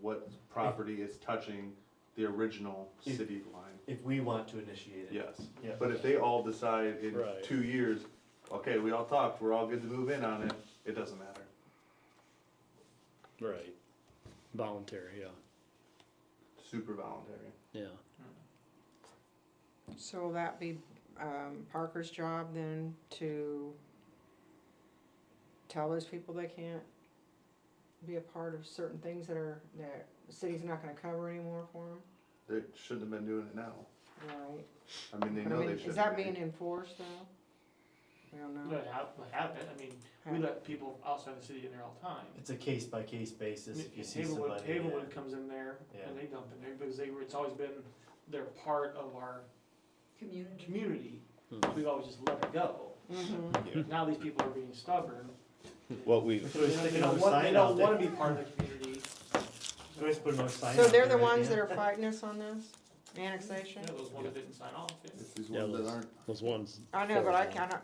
what property is touching the original If- city line. if we want to initiate it. Yes, Yeah. but if they all decide in Right. two years, okay, we all talked, we're all good to move in on it, it doesn't matter. Right. Voluntary, yeah, Super voluntary. yeah. So will that be um, Parker's job then to tell those people they can't be a part of certain things that are, that the city's not gonna cover anymore for them? They shouldn't have been doing it now. Right. I mean, they But I know mean, they should. Is that being enforced though? I don't know. That hap- what happened, I mean, we let people outside the city in there all the time. It's a case by case basis, if you see Havenwood, somebody. yeah. Havenwood comes in there Yeah. and they dump in there because they were, it's always been, they're part of our Community. community. Hmm. Mhm. We've always just let it go. Mhm. Now these people are being stubborn. What we, We could They always don't- stick they don't another want, they sign out don't there. wanna be part of the community. We could always put another sign So out they're there, the ones yeah. that are fighting us on this annexation? Yeah, those ones that didn't sign off. yeah. It's these Yeah, ones that those- aren't. Those ones. I know, but I forward. kinda,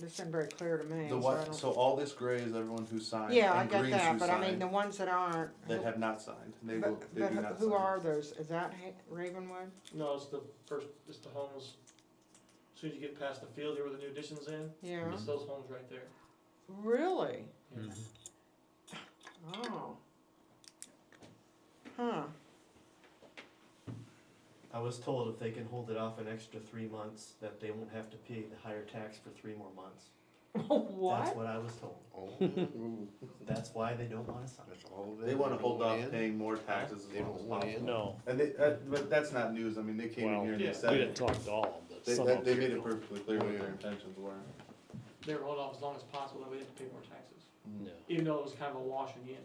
this isn't very clear to me, The so I what, so don't. all this gray is everyone who signed. Yeah, I and get green's that, who but I mean, signed, the ones that aren't. That have not signed, they will, But, they but do not who sign. are those? Is that Ha- Ravenwood? No, it's the first, it's the homes, as soon as you get past the field here where the new addition's in, Yeah. it's those homes right there. Really? Hmm. Yeah. Mhm. Oh. Huh. I was told if they can hold it off an extra three months, that they won't have to pay the higher tax for three more months. That's what? what I was told. Oh, Ooh, That's why they don't wanna sign. that's all They wanna hold want off in. paying more taxes as They long don't as want possible. in. No, And they, uh, but that's not news, I mean, they came in Well, here and they yeah. We we said, didn't talk to all, but they, some that- of they them. made it perfectly clear what their Yeah. intentions were. They were held off as long as possible, that we didn't pay more taxes, Yeah. even though it was kind of a washing in.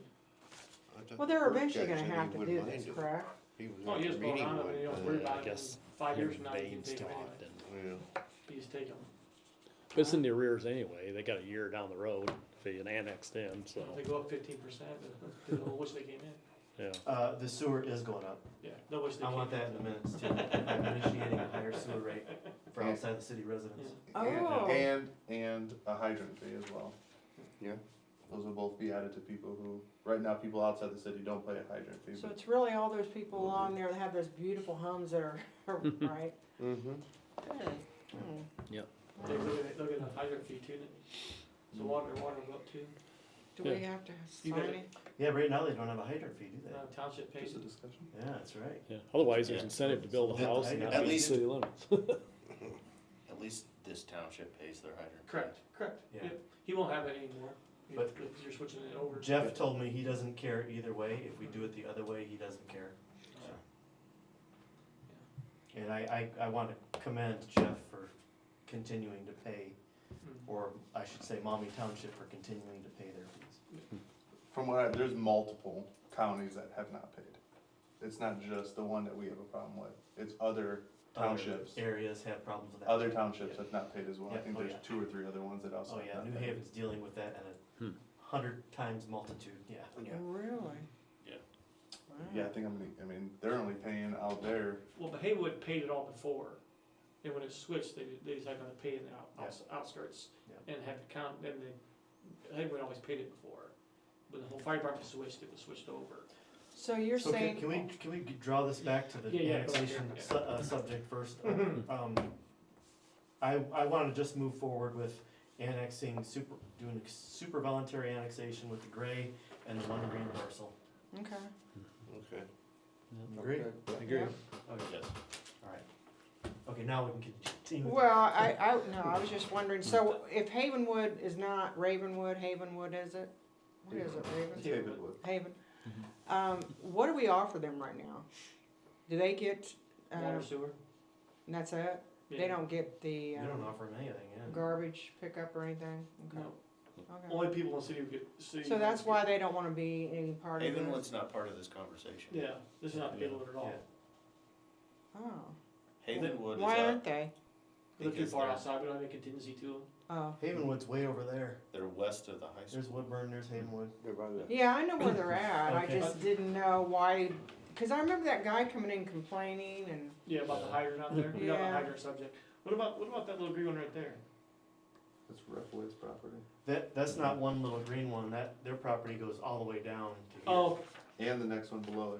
I thought Well, the they're court eventually judge gonna said he have to wouldn't do this, mind it. correct? He was Oh, at he the was going meeting on, I one mean, you don't time. worry Yeah, uh, I about it, in guess five years from now, you can Veins take them come out anyway, and, Yeah. you just take them. but it's in the arrears anyway, they got a year down the road if they get annexed in, so, If they go up fifteen percent, they'll they'll wish they came in, yeah. Uh, the sewer is going up. yeah, they'll wish they I came in. want that in the minutes too. I'm initiating a higher sewer rate for outside the city residents. Oh. And, and a hydrant fee as well. Yeah. Those will both be added to people who, right now, people outside the city don't pay a hydrant fee, So but it's really all those people along there that have those beautiful homes that are, right? Mm-hmm. Hmm. They look at, look at the hydrant fee too, then. so water, water will go up too, Do we Yeah. have to You sign got it? Yeah, right now they don't have a hydrant fee, do Uh, they? township pays just a it. discussion. Yeah, that's right. Yeah, otherwise there's Yeah. incentive to build a At- house and at not be in the least- city limits. At least this township pays their hydrant. correct, correct, Yeah. Yep. he won't have it anymore, if But- if you're switching it over. Jeff told me he doesn't care either way. If we do it the other way, he doesn't care. Uh, And I, I, I wanna commend Jeff for continuing to pay, mm. or I should say Mommy Township for continuing to pay their fees. From what I, there's multiple counties that have not paid. It's not just the one that we have a problem with, it's other Other townships, Areas have problems with that. other townships have not paid as well, I Yeah, think oh there's yeah. two or three other ones that also Oh have yeah, not New paid. Haven's dealing with that at a Hmm. hundred times multitude, yeah. Yeah. Really? Yeah. Wow. Yeah, I think I'm gonna, I mean, they're only paying out there, Well, but Haywood paid it all before, and when it switched, they, they decided not to pay in the out- outs- outskirts, Yeah. and had the count, and they, Haywood always paid it before. When the whole fire department switched, it was switched over. So you're So can, can we, saying, can we g- draw this back to the Yeah, yeah, go ahead, annexation yeah. su- uh, subject first? Um, I, I wanna just move forward with annexing super, doing a super voluntary annexation with the gray and the one green parcel. okay, Okay. Agree? Agree. Yeah. Oh, Yes. Alright. Okay, now we can continue. with- well, I, I, no, I was just wondering, so if Havenwood is not Ravenwood, Havenwood is it? What is it, Raven? David would. Haven. Mm-hmm. Um, what do we offer them right now? Do they get, uh, Water sewer? and that's it? They Yeah. don't get the, You don't um, offer them anything, yeah. garbage pickup or anything? Okay, No. okay. Only people in the city who get, city. So that's why they don't wanna be any part of Even this? what's not part of this conversation. Yeah, this is not Yeah. Haywood at all. Yeah. Oh. Havenwood is Why out, aren't they? They're too Because far they're- outside, we don't have any contingency to them. Oh, Havenwood's way over there. they're west of the high school. There's Woodburn, there's Havenwood. They're by the- yeah, I know where they're at, I Okay. just didn't know why, cause I remember that guy coming in complaining and, Yeah, about the hydrant out there, we got the Yeah. hydrant subject. What about, what about that little green one right there? That's Riffwood's property. That, that's not one little green one, that, their property goes all the way down to here. Oh, and the next one below it.